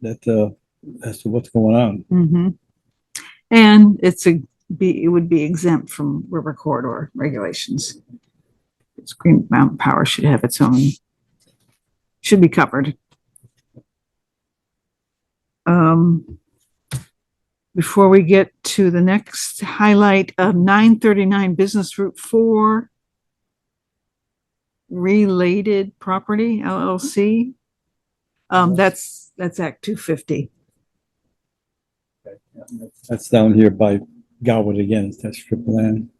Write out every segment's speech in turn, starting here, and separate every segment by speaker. Speaker 1: that, uh, as to what's going on.
Speaker 2: Mm-hmm. And it's a, be, it would be exempt from river corridor regulations. It's Green Mountain Power should have its own, should be covered. Um, before we get to the next highlight of nine thirty-nine Business Route Four, related property LLC. Um, that's, that's Act two fifty.
Speaker 1: That's down here by Gowood again, it's that strip of land.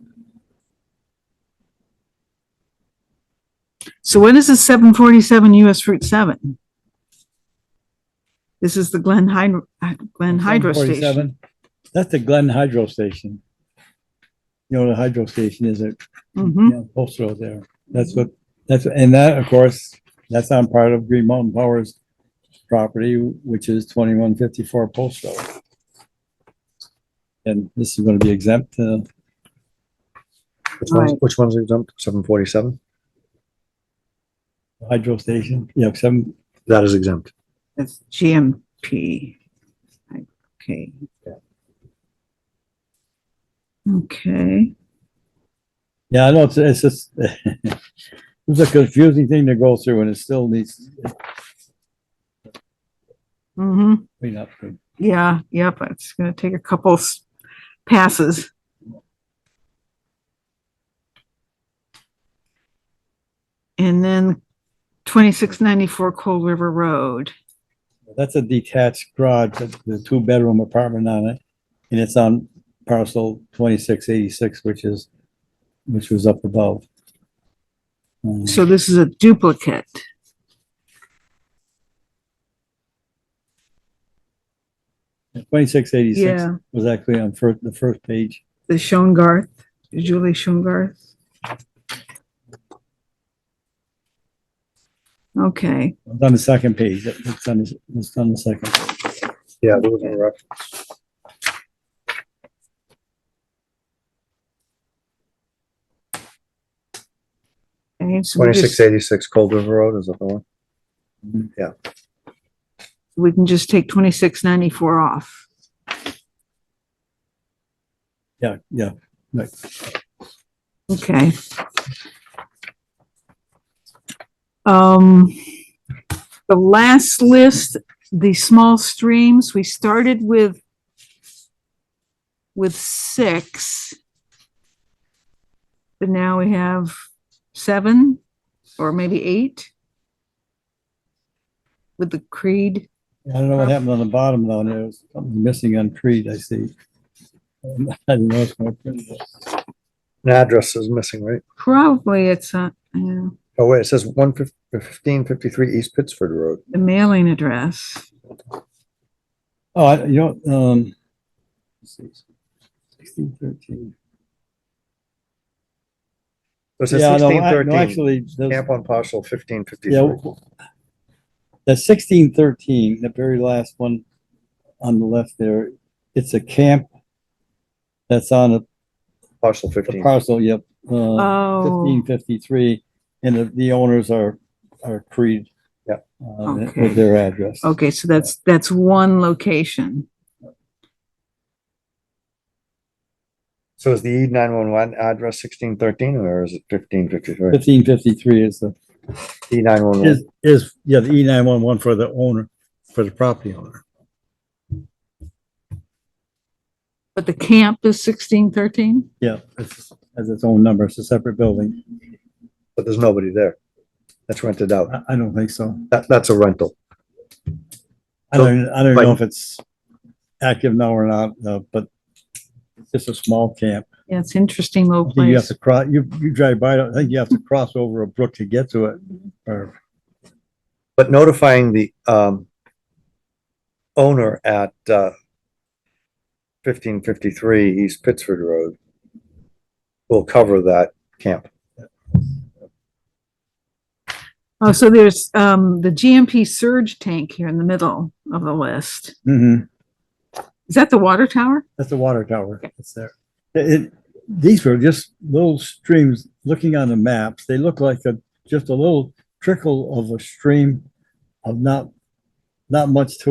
Speaker 2: So when is the seven forty-seven US Route seven? This is the Glen Hydro, Glen Hydro Station.
Speaker 1: 747. That's the Glen Hydro Station. You know, the hydro station is at
Speaker 2: hmm
Speaker 1: Yeah, Post Road there. That's what, that's, and that, of course, that's on part of Green Mountain Power's property, which is twenty-one fifty-four Post Road. And this is gonna be exempt, uh,
Speaker 3: Which one's,
Speaker 2: Right.
Speaker 3: which one's exempt? Seven forty-seven?
Speaker 1: hydro station, yeah, seven,
Speaker 3: That is exempt.
Speaker 2: that's GMP. Okay. Okay,
Speaker 1: yeah, I know, it's, it's just, it's a confusing thing to go through and it still needs
Speaker 2: hmm
Speaker 1: clean up.
Speaker 2: yeah, yep, it's gonna take a couple s- passes. And then twenty-six ninety-four Cold River Road.
Speaker 1: That's a detached garage, with the two-bedroom apartment on it, and it's on parcel twenty-six eighty-six, which is, which was up above. Um,
Speaker 2: So this is a duplicate.
Speaker 1: Twenty-six eighty-six
Speaker 2: Yeah.
Speaker 1: was actually on fir- the first page.
Speaker 2: The Schoengarth, Julie Schoengarth. Okay,
Speaker 1: It's on the second page. It- It's on, the- it's on the second.
Speaker 3: Yeah, there was no ref-
Speaker 2: and so we
Speaker 3: twenty-six
Speaker 2: just,
Speaker 3: eighty-six Cold River Road is the other one.
Speaker 2: we can just take twenty-six ninety-four off.
Speaker 1: Yeah, yeah.
Speaker 2: Okay. Um, the last list, the small streams, we started with with six. But now we have seven or maybe eight with the Creed.
Speaker 1: I don't know what happened on the bottom down there. There's Something missing on Creed, I see. Um, I don't know. it's my print.
Speaker 3: An address is missing, right?
Speaker 2: Probably it's a, yeah,
Speaker 3: Oh, wait, it says one fifteen fifty-three East Pittsford Road.
Speaker 2: the mailing address.
Speaker 1: Oh, I- you know, um, sixteen thirteen.
Speaker 3: It says
Speaker 1: Yeah, no,
Speaker 3: sixteen
Speaker 1: I- no,
Speaker 3: thirteen,
Speaker 1: actually, there's-
Speaker 3: camp on parcel fifteen
Speaker 1: yeah,
Speaker 3: fifty-three.
Speaker 1: The sixteen thirteen, the very last one on the left there, it's a camp that's on a-
Speaker 3: Parcel
Speaker 1: a
Speaker 3: fifteen.
Speaker 1: parcel, yep. uh,
Speaker 2: Oh,
Speaker 1: fifteen fifty-three, and the, the owners are, are Creed.
Speaker 3: Yep.
Speaker 1: uh,
Speaker 2: Okay.
Speaker 1: With their address.
Speaker 2: Oh, okay, so that's, that's one location.
Speaker 3: So is the E nine-one-one address sixteen thirteen or is it fifteen fifty-three?
Speaker 1: Fifteen fifty-three is the,
Speaker 3: E nine-one-one.
Speaker 1: is, is, yeah, the E nine one one for the owner, for the property owner.
Speaker 2: But the camp is sixteen thirteen?
Speaker 1: Yeah, it's, has its own number, it's a separate building.
Speaker 3: But there's nobody there. That's rented out.
Speaker 1: I, I don't think so.
Speaker 3: That, that's a rental.
Speaker 1: I don't, I don't
Speaker 3: Like-
Speaker 1: know if it's active now or not, uh, but it's just a small camp.
Speaker 2: Yeah, it's interesting little
Speaker 1: I think You have
Speaker 2: place.
Speaker 1: to cross, you, you drive by, I think you have to cross over a brook to get to it, or,
Speaker 3: But notifying the, um, owner at, uh, fifteen fifty-three East Pittsford Road will cover that camp.
Speaker 2: Oh, so there's, um, the GMP surge tank here in the middle of the list.
Speaker 1: Mhm.
Speaker 2: Is that the water tower?
Speaker 1: That's the water tower. It's there. It, it- these were just little streams, looking on the maps, they look like a, just a little trickle of a stream of not, not much to